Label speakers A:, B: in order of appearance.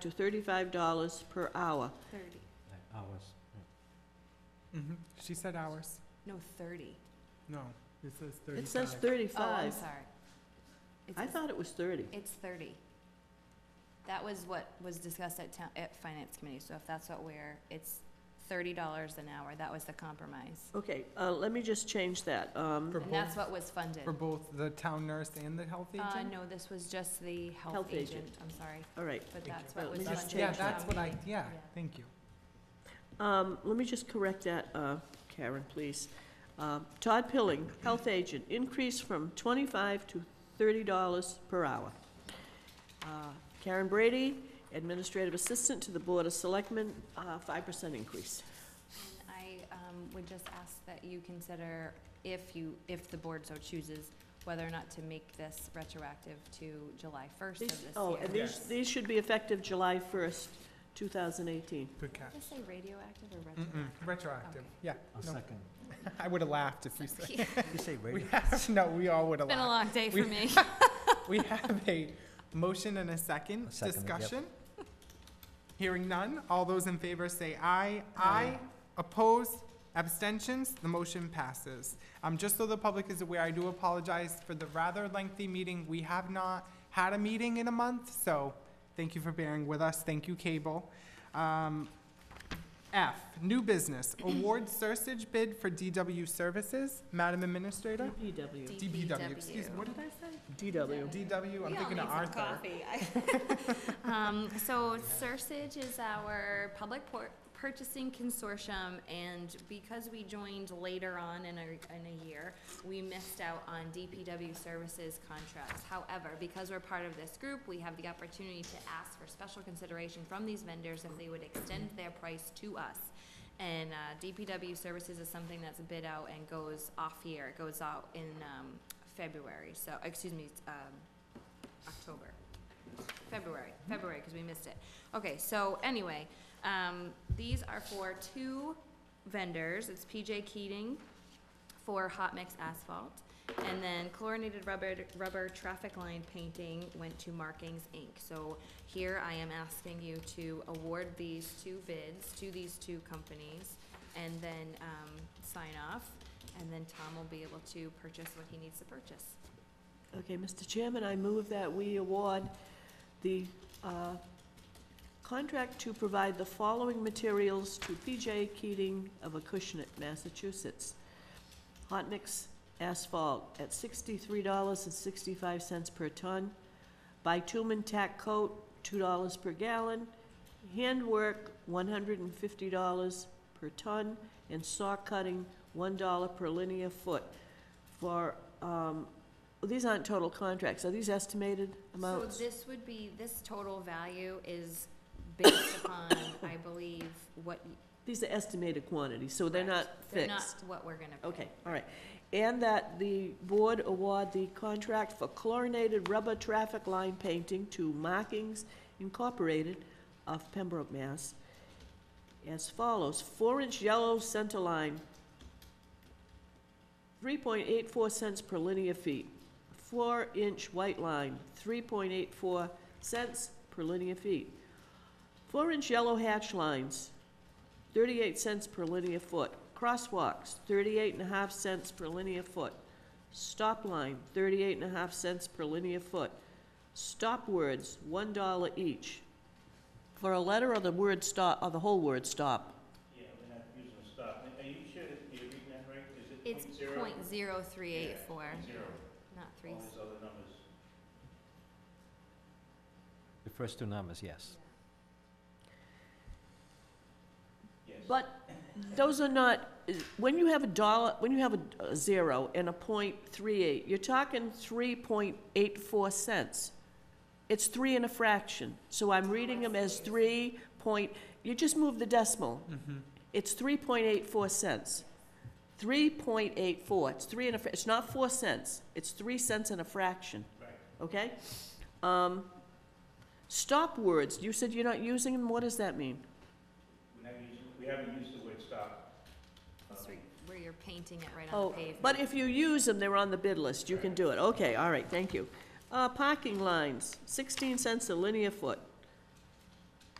A: to thirty-five dollars per hour.
B: Thirty,
C: Hours.
D: Mm-hmm. She said hours.
B: no, thirty.
D: No, it says thirty-five.
A: It says
B: Oh, I'm
A: thirty-five.
B: sorry. It's-
A: I thought it was thirty.
B: It's thirty. That was what was discussed at town, at finance committee, so if that's what we're, it's thirty dollars an hour, that was the compromise.
A: Okay, uh, let me just change that. Um,
D: For
B: And that's
D: both,
B: what was funded.
D: for both the town nurse and the health agent?
B: Uh, no, this was just the health
A: Health
B: agent,
A: agent.
B: I'm sorry,
A: All right,
B: but
D: Thank
B: that's
A: you. Let
B: what was
A: me
B: funded.
A: just
B: at
D: Yeah,
A: change
B: town
D: that's what I,
B: meeting.
D: yeah, thank you.
A: um, let me just correct that, uh, Karen, please. Um, Todd Pilling, health agent, increase from twenty-five to thirty dollars per hour. Uh, Karen Brady, administrative assistant to the Board of Selectmen, uh, five percent increase.
B: I um, would just ask that you consider, if you, if the board so chooses, whether or not to make this retroactive to July 1st of
A: These-
B: this year.
A: Oh, and these,
D: Yes.
A: these should be effective July first, two thousand eighteen.
D: Good catch.
B: Did I say radioactive or
D: Mm-mm,
B: retroactive?
D: retroactive, yeah.
C: A
D: no.
C: second.
D: I would've laughed if you said,
B: Sorry.
C: You say
D: we
C: radio?
D: have, no, we all would've
B: Been a
D: laughed.
B: long day for
D: We-
B: me.
D: We have a motion and a second
C: A second, yep.
D: discussion. Hearing none, all those in favor say aye.
C: Aye.
D: Aye. Opposed, abstentions, the motion passes. Um, just so the public is aware, I do apologize for the rather lengthy meeting. We have not had a meeting in a month, so thank you for bearing with us. Thank you, Cable. Um, F, new business, award Sursage bid for DW services. Madam Administrator?
A: DPW.
D: DPW, excuse me, what did I say?
A: DW.
D: DW, I'm thinking of Arthur.
B: Um, so Sursage is our public por- purchasing consortium, and because we joined later on in a, in a year, we missed out on DPW services contracts. However, because we're part of this group, we have the opportunity to ask for special consideration from these vendors if they would extend their price to us. And, uh, DPW services is something that's bid out and goes off year, it goes out in, um, February, so, excuse me, um, October. February, February, because we missed it. Okay, so anyway, um, these are for two vendors. It's PJ Keating for hot mix asphalt. And then chlorinated rubber, rubber traffic line painting went to Markings Inc. So here I am asking you to award these two bids to these two companies and then, um, sign off. And then Tom will be able to purchase what he needs to purchase.
A: Okay, Mr. Chairman, I move that we award the uh, contract to provide the following materials to PJ Keating of Acushnet, Massachusetts. Hot mix asphalt at sixty-three dollars and sixty-five cents per ton. Bitumen tack coat, two dollars per gallon. Handwork, one hundred and fifty dollars per ton. And saw cutting, one dollar per linear foot for um, well, These aren't total contracts, are these estimated amounts?
B: So this would be, this total value is based upon, I believe, what. y-
A: These are estimated quantities, so they're not
B: correct. They're not
A: fixed.
B: what we're gonna pay.
A: Okay, all right. And that the board award the contract for chlorinated rubber traffic line painting to Markings Incorporated of Pembroke, Mass. As follows, four-inch yellow center line, three point eight four cents per linear feet. Four-inch white line, three point eight four cents per linear feet. Four-inch yellow hatch lines, 38 cents per linear foot. Crosswalks, 38 and a half cents per linear foot. Stop line, 38 and a half cents per linear foot. Stop words, $1 each. For a letter or the word stop, or the whole word stop?
E: Yeah, we're not using a stop. Are you sure that you're reading that right? Is it
B: It's
E: point zero?
B: point zero three eight four,
E: Yeah, Zero,
B: not three.
E: all these other numbers.
C: The first two numbers, yes.
E: Yes.
A: But those are not, when you have a dollar, when you have a- a zero and a point three eight, you're talking 3.84 cents. It's three and a fraction, so I'm reading them as three point, you just move the decimal.
E: Mm-hmm.
A: It's 3.84 cents. 3.84, it's three and a, fr- it's not 4 cents, it's 3 cents and a fraction.
E: Right.
A: Okay? Um, Stop words, you said you're not using them, what does that mean?
E: We're not using, we haven't used the word stop.
B: That's
E: Um,
B: where- Where you're painting it right on
A: Oh,
B: the pavement.
A: but if you use them, they're on the bid list, you can do it, okay, all right, thank you. Uh, parking lines, sixteen cents a linear foot.